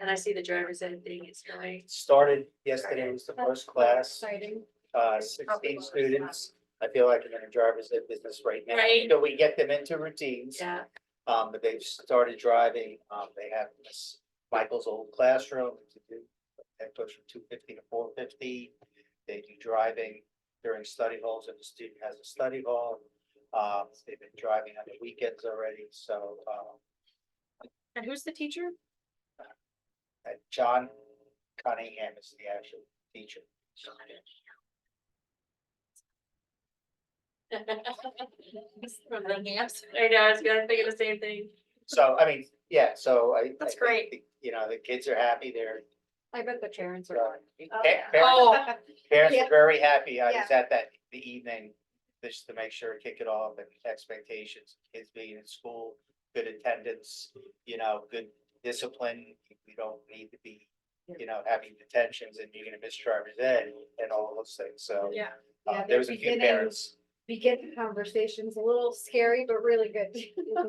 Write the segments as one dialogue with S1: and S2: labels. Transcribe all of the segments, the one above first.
S1: And I see the driver's ed thing is really.
S2: Started yesterday was the first class,
S1: Exciting.
S2: uh, sixteen students. I feel like I'm in a driver's ed business right now.
S1: Right.
S2: Until we get them into routines.
S1: Yeah,
S2: Um, but they've started driving, um, they have Miss Michael's old classroom. to do- That goes from two fifty to four fifty. They do driving during study halls if the student has a study hall. Um, they've been driving on the weekends already, so, um,
S1: and who's the teacher?
S2: and John Cunningham is the actual teacher.
S1: From the Hams. I know, I was gonna think of the same thing.
S2: So, I mean, yeah, so I. I
S1: That's
S2: think
S1: great.
S2: the- You know, the kids are happy, they're,
S3: I bet the parents
S2: Yeah.
S3: are. happy.
S1: Oh,
S2: pa-
S1: yeah.
S2: parents-
S1: Oh,
S2: Parents
S3: Yeah.
S2: are very happy. I was
S3: Yeah.
S2: at that the evening, just to make sure, kick it off, and expectations, kids being in school, good attendance, you know, good discipline. We don't need to be, you know, having detentions and you're gonna miss driver's ed and all those things, so.
S1: yeah,
S2: uh,
S3: Yeah,
S2: There
S3: they're
S2: was a few
S3: beginning-
S2: parents,
S3: We get the conversations a little scary, but really good.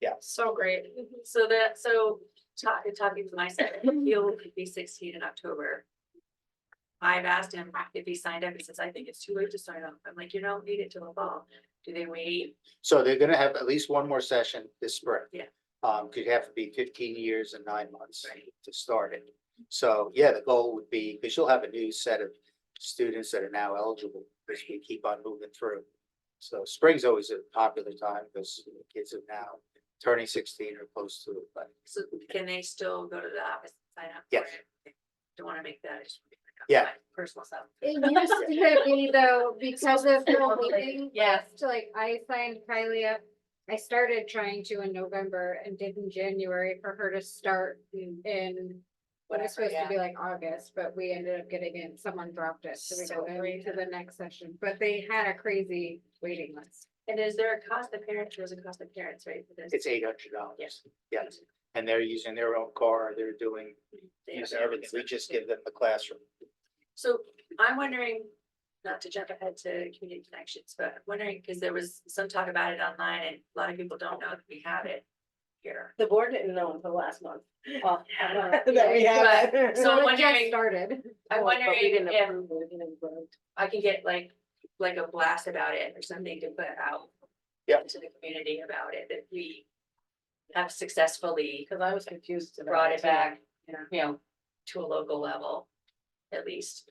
S2: yeah,
S1: so great. So that, so talking, talking to my son, he'll be sixteen in October. I've asked him if he signed up. He says, I think it's too late to sign up. I'm like, you don't need it till the fall. Do they wait?
S2: so they're gonna have at least one more session this spring.
S1: Yeah.
S2: Um, could have to be fifteen years and nine months.
S1: Right.
S2: to start it. So, yeah, the goal would be, because you'll have a new set of students that are now eligible, because we keep on moving through. So spring's always a popular time because kids are now turning sixteen or close to it, but
S1: So can they still go to the office and sign up? for
S2: Yes.
S1: it? Don't wanna make that. issue.
S2: Yeah.
S1: My Personal stuff.
S3: It used to be though, because of the meeting.
S1: Yes.
S3: To like, I signed Kylie up. I started trying to in November and did in January for her to start in. What was supposed to be like August, but we ended up getting in, someone dropped it, so we
S1: So
S3: go
S1: great.
S3: into the next session, but they had a crazy waiting list.
S1: And is there a cost to parents? There's a cost to parents, right? for this?
S2: it's eight hundred dollars.
S1: Yes.
S2: Yes, and they're using their own car, they're doing,
S1: They have
S2: using
S1: their own
S2: everything, we
S1: expenses.
S2: just give them the classroom.
S1: So I'm wondering, not to jump ahead to community connections, but I'm wondering, because there was some talk about it online and a lot of people don't know that we have it here.
S4: The board didn't know until last month. Well, I don't know
S3: Yeah,
S4: That we have. it.
S1: So I'm
S3: Well, it just
S1: wondering-
S3: Started.
S1: I'm
S4: But we
S1: wondering
S4: didn't
S1: if
S4: approve it, we didn't vote.
S1: I can get like, like a blast about it or something to put out.
S2: Yeah.
S1: To the community about it, that we have successfully
S4: Cause I was confused. about
S1: brought it back
S4: too. You know,
S1: to a local level, at least.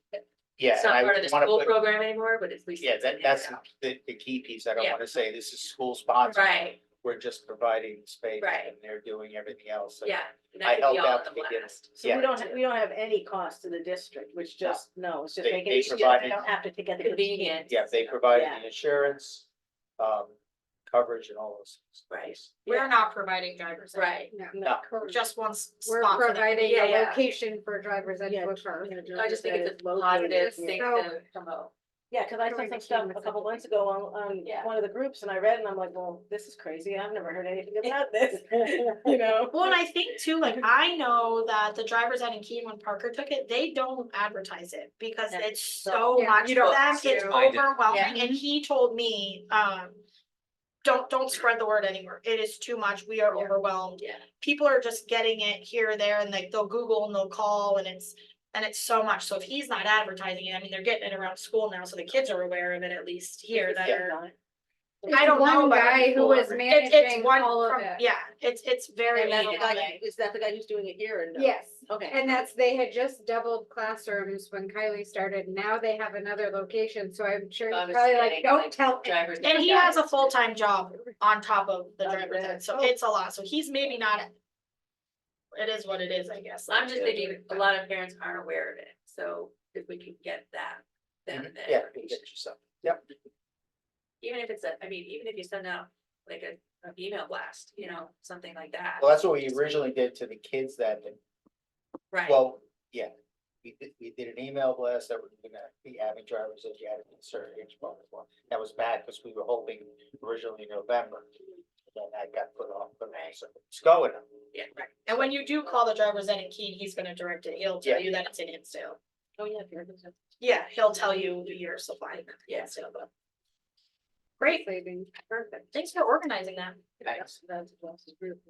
S2: Yeah,
S1: It's
S2: and
S1: not
S2: I
S1: part of the
S2: want
S1: school
S2: to put,
S1: program anymore, but it's at least.
S2: yeah,
S1: it's
S2: that,
S1: in there
S2: that's
S1: now.
S2: the, the key piece. I don't
S1: Yeah.
S2: want to say this is school sponsored.
S1: Right,
S2: We're just providing space
S1: Right.
S2: and they're doing everything else. and-
S1: yeah. and that could
S2: I
S1: be
S2: helped
S1: all
S2: out
S1: at
S2: to
S1: the
S2: begin with.
S1: last.
S4: so
S2: Yeah.
S4: we don't, we don't have any cost to the district, which just, no, it's just
S2: They-
S4: making,
S2: they
S4: it easier.
S2: provided-
S4: they don't have to get the
S1: Convenient.
S4: convenience.
S2: Yeah, they provided
S4: Yeah.
S2: the insurance, um, coverage and all those.
S1: Right.
S5: We're not providing driver's ed.
S1: Right,
S3: No.
S2: No.
S3: Correct.
S5: Just one s-
S3: We're
S5: spot for them.
S3: providing
S1: Yeah,
S3: a
S1: yeah.
S3: location for drivers and
S4: Yeah.
S3: booker.
S1: I just think it's a
S4: located
S1: positive
S4: here.
S1: thing
S3: So-
S1: to promote.
S4: Yeah, cause I saw some stuff a couple months ago on, on
S1: Yeah.
S4: one of the groups and I read and I'm like, well, this is crazy. I've never heard anything about this, you know?
S5: Well, and I think too, like, I know that the driver's ed in Keene, when Parker took it, they don't advertise it because
S1: Yeah.
S5: it's so
S3: Yeah,
S5: much
S1: you
S5: for
S1: don't
S5: them,
S1: have
S5: it's
S1: to.
S2: I did.
S5: overwhelming, and he told me, um. Don't, don't spread the word anywhere, it is too much, we are
S1: Yeah.
S5: overwhelmed,
S1: Yeah.
S5: people are just getting it here, there, and like, they'll Google and they'll call, and it's. And it's so much, so if he's not advertising it, I mean, they're getting it around school now, so the kids are aware of it at least here that
S2: Yeah.
S5: are.
S3: It's
S5: I don't know
S3: one
S5: about
S3: guy who was
S2: before.
S5: It's,
S3: managing
S5: it's one
S3: all of
S5: from,
S3: it.
S5: yeah, it's, it's very.
S4: And that's the
S5: overwhelming.
S4: guy, is that the guy who's doing it here and?
S3: Yes,
S4: Okay.
S3: and that's, they had just doubled classrooms when Kylie started. Now they have another location, so I'm sure
S1: I
S3: he's
S1: was
S3: probably
S1: saying, like,
S3: like, don't tell. me."
S1: Drivers.
S5: And he has a full-time job on top of the
S4: Oh,
S5: driver's
S4: yeah.
S5: ed, so
S4: Oh.
S5: it's a lot, so he's maybe not. It is what it is, I guess.
S1: I'm just thinking, a lot of parents aren't aware of it, so if we can get that, then the
S2: Mm-hmm. Yeah, you
S1: information.
S2: get yourself. Yep,
S1: Even if it's a, I mean, even if you send out like a, an email blast, you know, something like that,
S2: well, that's what we originally did to the kids that,
S1: right?
S2: well, yeah. We did, we did an email blast that we're gonna be having drivers if you had a concern, each one was one. That was bad because we were hoping originally in November. Then that got put off, but
S1: Right.
S2: so it's going.
S1: Yeah, right.
S5: And when you do call the driver's ed in Keene, he's gonna direct it, he'll
S2: Yeah.
S5: tell you that it's in Hinsdale.
S4: Oh, yeah. if you're-
S5: Yeah, he'll tell you your supply, yeah, so. but- Great,
S3: Saving.
S5: perfect, thanks for organizing that.
S2: Thanks.
S4: That's- that's- that's-